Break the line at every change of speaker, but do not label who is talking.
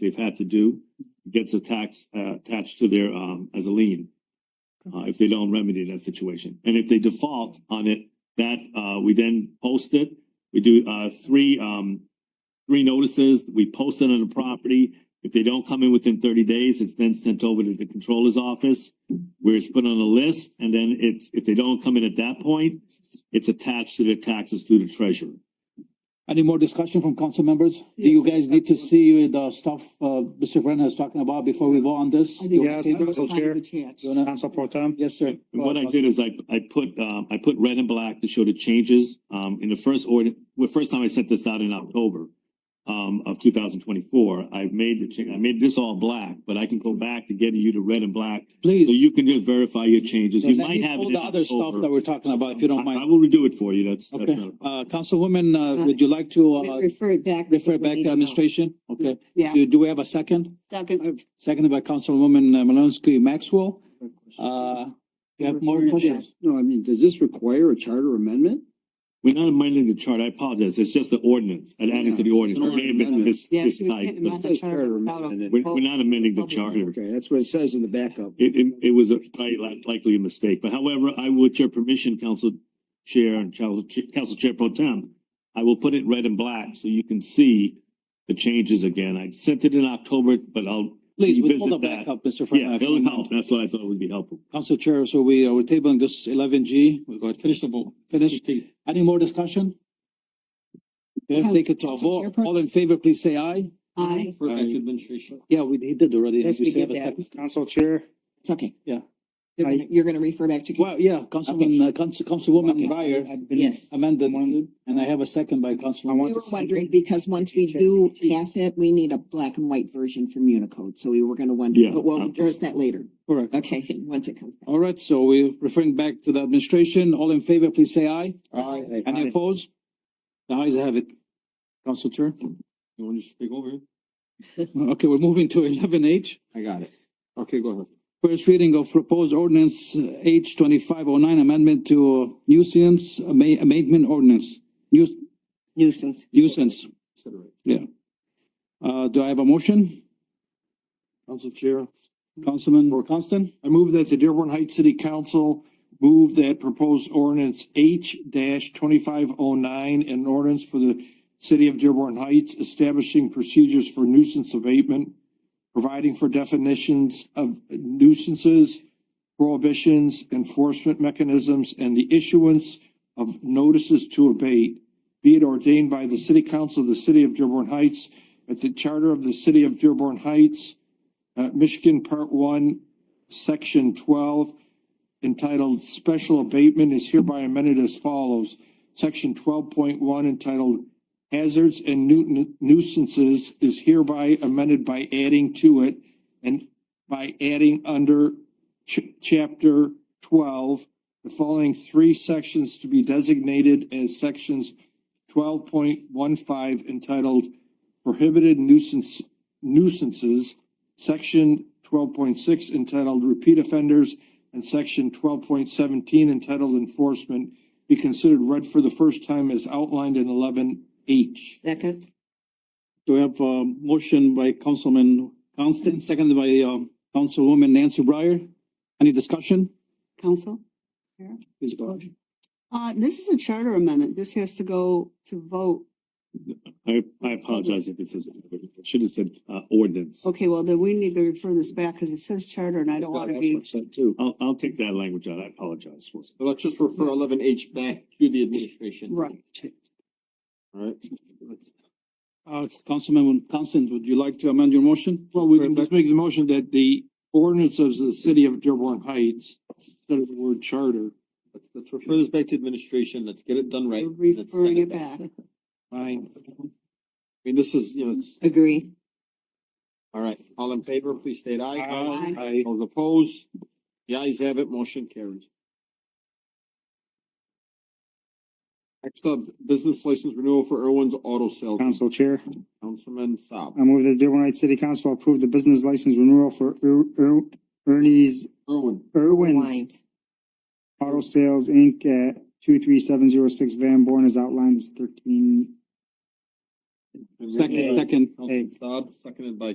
they've had to do gets a tax uh, attached to their um as a lien. Uh, if they don't remedy that situation, and if they default on it, that uh we then post it. We do uh three um three notices. We post it on the property. If they don't come in within thirty days, it's then sent over to the controller's office, where it's put on a list, and then it's if they don't come in at that point, it's attached to their taxes through the treasurer.
Any more discussion from council members? Do you guys need to see the stuff uh Mr. Brennan is talking about before we vote on this?
I
Do you
think
wanna
that's
table it?
kind of
Chair.
attached.
You wanna-
Council Pro Tem,
Yes, sir. Uh,
And what I did is I, I put, um, I put red and black to show the changes, um, in the first order, well, first time I sent this out in October. Um, of two thousand twenty-four, I've made the change, I made this all black, but I can go back to getting you to red and black. So
Please.
you can just verify your changes, you
Because I
might
need
have it
All
in
the other stuff that
October.
we're talking about, if you
I,
don't
I
mind.
will redo it for you, that's, that's
Okay,
not,
uh councilwoman, uh would you like to
We
uh
Refer it back.
refer
if we
back
need
to
to.
administration? Okay,
Yeah,
do do we have a second?
second,
Seconded by Councilwoman uh, Malinsky Maxwell. Uh, you have more questions?
No, I mean, does this require a charter amendment?
we're not amending the chart, I apologize, it's just the ordinance, and adding to the ordinance,
Yeah.
it may have been this,
Yeah,
this
so we can't
type,
amend
but
the charter without a
amendment.
we're, we're not amending the
Okay.
charter.
Okay, that's what it says in the backup.
It, it, it was a, quite li- likely a mistake, but however, I would, your permission, Council Chair and Council, Ch- Council Chair Pro Tem, I will put it red and black so you can see the changes again. I sent it in October, but I'll,
Please, we
revisit
pull the
that.
back up, Mr. Brennan.
yeah,
if you
it'll
don't
help.
mind.
That's what I thought would be helpful.
Council Chair, so we uh, we're tabling this eleven G. We got finished the vote. Finished. Any more discussion? Let's take it to a vote. All in favor, please say aye.
aye,
Yeah, we he did already.
Yes,
We
we
still have
did
a
that.
second.
Council Chair,
it's okay.
Yeah.
You're gonna, you're gonna refer back to.
Well, yeah, Councilman, uh, Council, Councilwoman
Okay.
Breyer had been
Yes.
amended, and I have a second by
I
Councilwoman.
want-
We were wondering, because once we do pass it, we need a black and white version from Unicode, so we were gonna wonder,
Yeah.
but we'll address that later.
Correct.
Okay, once it comes back.
All right, so we're referring back to the administration. All in favor, please say aye.
Aye.
Any opposed? The ayes have it. Council Chair.
You want to speak over?
Okay, we're moving to eleven H.
I got it. Okay, go ahead.
First reading of proposed ordinance uh, H twenty-five oh nine amendment to nuisance ama- abatement ordinance, nu-
Nuisance.
nuisance. Yeah. Uh, do I have a motion?
Council Chair,
Councilman Constant?
I move that the Dearborn Heights City Council move that proposed ordinance H twenty-five oh nine an ordinance for the city of Dearborn Heights establishing procedures for nuisance abatement, providing for definitions of nuisances, prohibitions, enforcement mechanisms, and the issuance of notices to abate, be it ordained by the city council of the city of Dearborn Heights at the charter of the city of Dearborn Heights, uh, Michigan Part One, Section twelve entitled Special Abatement is hereby amended as follows. Section twelve point one entitled Hazards and Nu- Nuisances is hereby amended by adding to it and by adding under ch- chapter twelve, the following three sections to be designated as sections twelve point one five entitled Prohibited Nuisance Nuisances Section twelve point six entitled Repeat Offenders and Section twelve point seventeen entitled Enforcement be considered read for the first time as outlined in eleven H.
Second.
Do we have a motion by Councilman Constant, seconded by, um, Councilwoman Nancy Breyer? Any discussion?
Council?
Please go ahead.
Uh, this is a charter amendment. This has to go to vote.
I, I apologize if it says, I should have said, uh, ordinance.
Okay, well, then we need to refer this back because it says charter and I don't want to be.
Too.
I'll, I'll take that language out. I apologize.
Let's just refer eleven H back to the administration.
Right.
Alright.
Uh, Councilman Constant, would you like to amend your motion?
Well, we can just make the motion that the ordinance of the city of Dearborn Heights, instead of the word charter,
Let's, let's refer this back to administration. Let's get it done right.
We're
Let's send
Referring it back.
fine.
I mean, this is, you know, it's,
Agree.
alright, all in favor, please state aye.
Aye.
Aye.
Those opposed? The ayes have it, motion carries. Next up, business license renewal for Irwin's Auto Sales.
Council Chair,
Councilman Saab.
I move that Dearborn Heights City Council approve the business license renewal for Er- Er- Ernie's,
Irwin.
Irwin's
Wines.
Auto Sales, Inc. at two three seven zero six Van Born is outlined as thirteen
Second, second.
Councilman Saab, seconded by